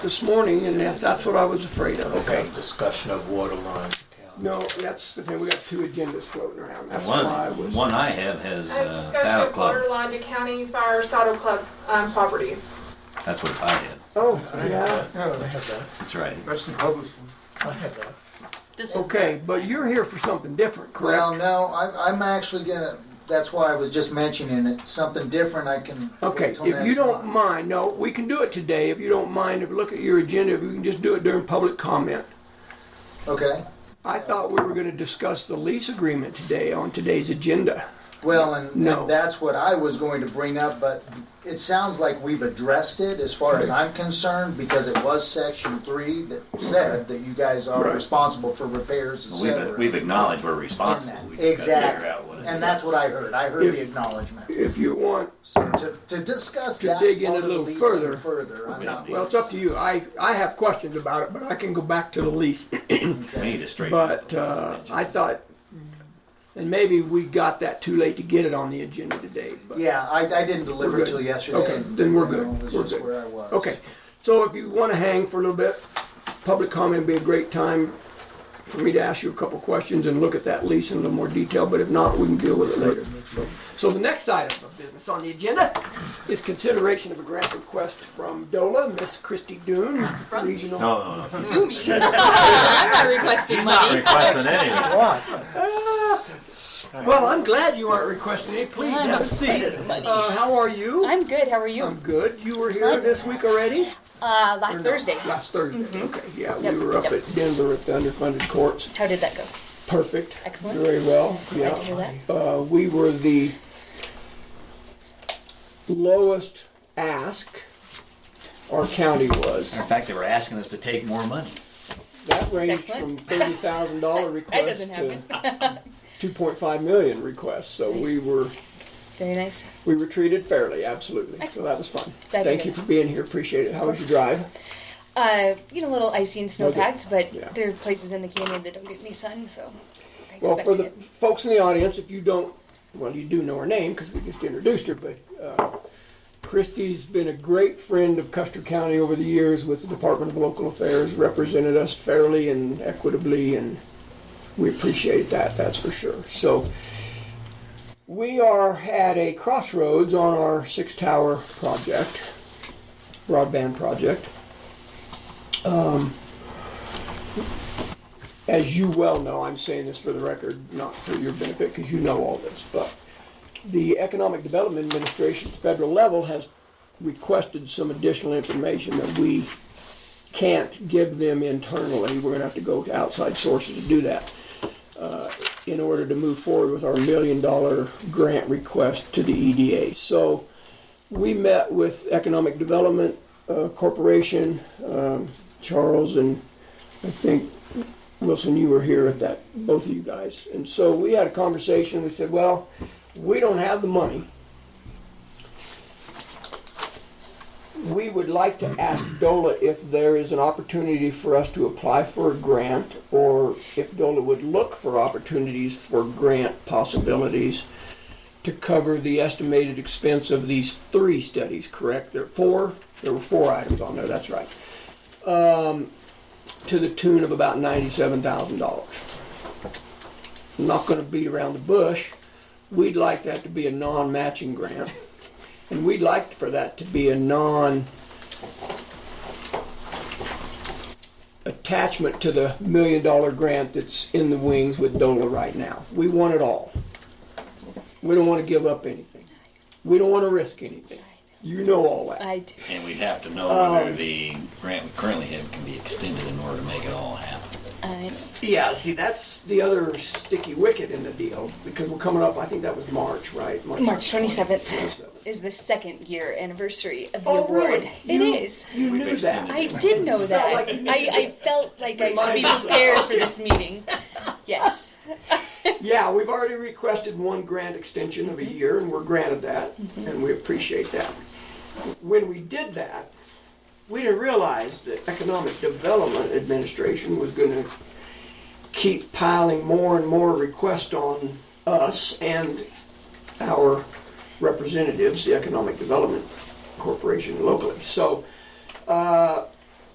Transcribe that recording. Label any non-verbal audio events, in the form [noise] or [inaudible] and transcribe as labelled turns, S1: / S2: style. S1: this morning, and that- that's what I was afraid of, okay?
S2: Discussion of water line.
S1: No, that's the thing, we got two agendas floating around, that's why
S3: One,
S1: I was.
S3: one I have has
S4: I have
S3: uh,
S4: discussion
S3: Saddle
S4: of
S3: Club.
S4: borderline to county fire saddle club um, properties.
S3: That's what I had.
S1: Oh,
S2: I have
S1: yeah,
S2: that. I have that.
S3: That's right.
S5: That's the public one.
S2: I have that.
S6: This is
S1: okay, but you're here for something different,
S5: Well,
S1: correct?
S5: no, I'm, I'm actually gonna, that's why I was just mentioning it, something different I can. wait
S1: Okay,
S5: till
S1: if you
S5: next
S1: don't
S5: month.
S1: mind, no, we can do it today, if you don't mind, if you look at your agenda, we can just do it during public comment.
S5: Okay,
S1: I thought we were gonna discuss the lease agreement today on today's agenda.
S5: well, and
S1: No.
S5: and that's what I was going to bring up, but it sounds like we've addressed it as far as I'm concerned, because it was section three that said that you guys are
S1: Right.
S5: responsible for repairs, et
S3: We've, uh,
S5: cetera.
S3: we've acknowledged we're
S5: in
S3: responsible.
S5: that.
S3: We just gotta figure out what
S5: Exactly,
S3: it
S5: and
S3: is.
S5: that's what I heard, I heard the
S1: If-
S5: acknowledgement.
S1: If you want,
S5: So to, to discuss
S1: To
S5: that
S1: dig in a
S5: part of the
S1: little
S5: lease
S1: further.
S5: further, I'm not.
S1: well, it's up to you, I, I have questions about it, but I can go back to the lease.
S3: We need to straighten up
S1: But
S3: the rest of
S1: uh,
S3: it.
S1: I thought, and maybe we got that too late to get it on the agenda today. but-
S5: Yeah, I, I didn't
S1: We're
S5: deliver it
S1: good.
S5: till yesterday.
S1: Okay, then we're
S5: You know,
S1: good.
S5: It was
S1: We're
S5: just
S1: good.
S5: where I was.
S1: Okay, so if you want to hang for a little bit, public comment would be a great time for me to ask you a couple questions and look at that lease in a little more detail, but if not, we can deal with it later. So- So the next item of business on the agenda is consideration of a grant request from DOLA, Miss Christy Dune,
S6: From me.
S1: regional.
S3: No, no, no.
S6: to me. [laughs] I'm not requesting money.
S3: Requesting anything.
S1: Well, I'm glad you aren't requesting it. Please
S6: I'm
S1: have a
S6: not
S1: seat.
S6: requesting money.
S1: Uh, how are you?
S6: I'm good. How are you?
S1: I'm good. You were here this week already?
S6: Uh,
S1: Or
S6: last
S1: no?
S6: Thursday.
S1: Last Thursday, okay, yeah,
S6: Mm-hmm. Yep,
S1: we were up
S6: yep.
S1: at Denver at the underfunded courts.
S6: How did that go?
S1: Perfect.
S6: Excellent.
S1: Very well, yeah.
S6: Glad to hear that.
S1: Uh, we were the lowest ask our county was.
S3: In fact, they were asking us to take more money.
S1: That ranged from
S6: Excellent.
S1: thirty thousand dollar
S6: [laughs] That
S1: requests
S6: doesn't happen.
S1: to two point five million requests, so we were,
S6: Very nice.
S1: we were treated fairly, absolutely. So
S6: Excellent.
S1: that was fun.
S6: Glad to
S1: Thank
S6: hear
S1: you
S6: that.
S1: for being here, appreciate it. How was your drive?
S6: Uh, you know, a little icy and snow packed, but
S1: Yeah.
S6: there are places in the canyon that don't get any sun, so I
S1: Well,
S6: expected
S1: for the
S6: it.
S1: folks in the audience, if you don't, well, you do know her name because we just introduced her, but uh, Christy's been a great friend of Custer County over the years with the Department of Local Affairs, represented us fairly and equitably, and we appreciate that, that's for sure. So we are at a crossroads on our six tower project, broadband project. as you well know, I'm saying this for the record, not for your benefit, because you know all this, but the Economic Development Administration at the federal level has requested some additional information that we can't give them internally. We're gonna have to go to outside sources to do that uh, in order to move forward with our million-dollar grant request to the EDA. So we met with Economic Development uh, Corporation, um, Charles and I think Wilson, you were here at that, both of you guys. And so we had a conversation, we said, well, we don't have the money. We would like to ask DOLA if there is an opportunity for us to apply for a grant or if DOLA would look for opportunities for grant possibilities to cover the estimated expense of these three studies, correct? There are four, there were four items on there, that's right to the tune of about ninety-seven thousand dollars. I'm not gonna beat around the bush. We'd like that to be a non-matching grant. And we'd like for that to be a non attachment to the million-dollar grant that's in the wings with DOLA right now. We want it all. We don't wanna give up anything. We don't wanna risk anything. You know all that.
S6: I do.
S3: And we'd have to know whether the grant we currently have can be extended in order to make it all happen.
S6: I know.
S1: Yeah, see, that's the other sticky wicket in the deal because we're coming up. I think that was March, right?
S6: March 27th
S1: 27th.
S6: is the second year anniversary of the
S1: Oh,
S6: award.
S1: really?
S6: It
S1: You-
S6: is.
S1: You
S3: We've
S1: knew
S3: extended
S1: that.
S6: I did know that.
S1: like you needed
S6: I, I felt like I should
S1: Remind
S6: be
S1: us.
S6: prepared for
S1: [laughs]
S6: this meeting. Yes.
S1: Yeah, we've already requested one grant extension of a year, and we're granted that, and we appreciate that. When we did that, we didn't realize that Economic Development Administration was gonna keep piling more and more requests on us and our representatives, the Economic Development Corporation locally. So, uh,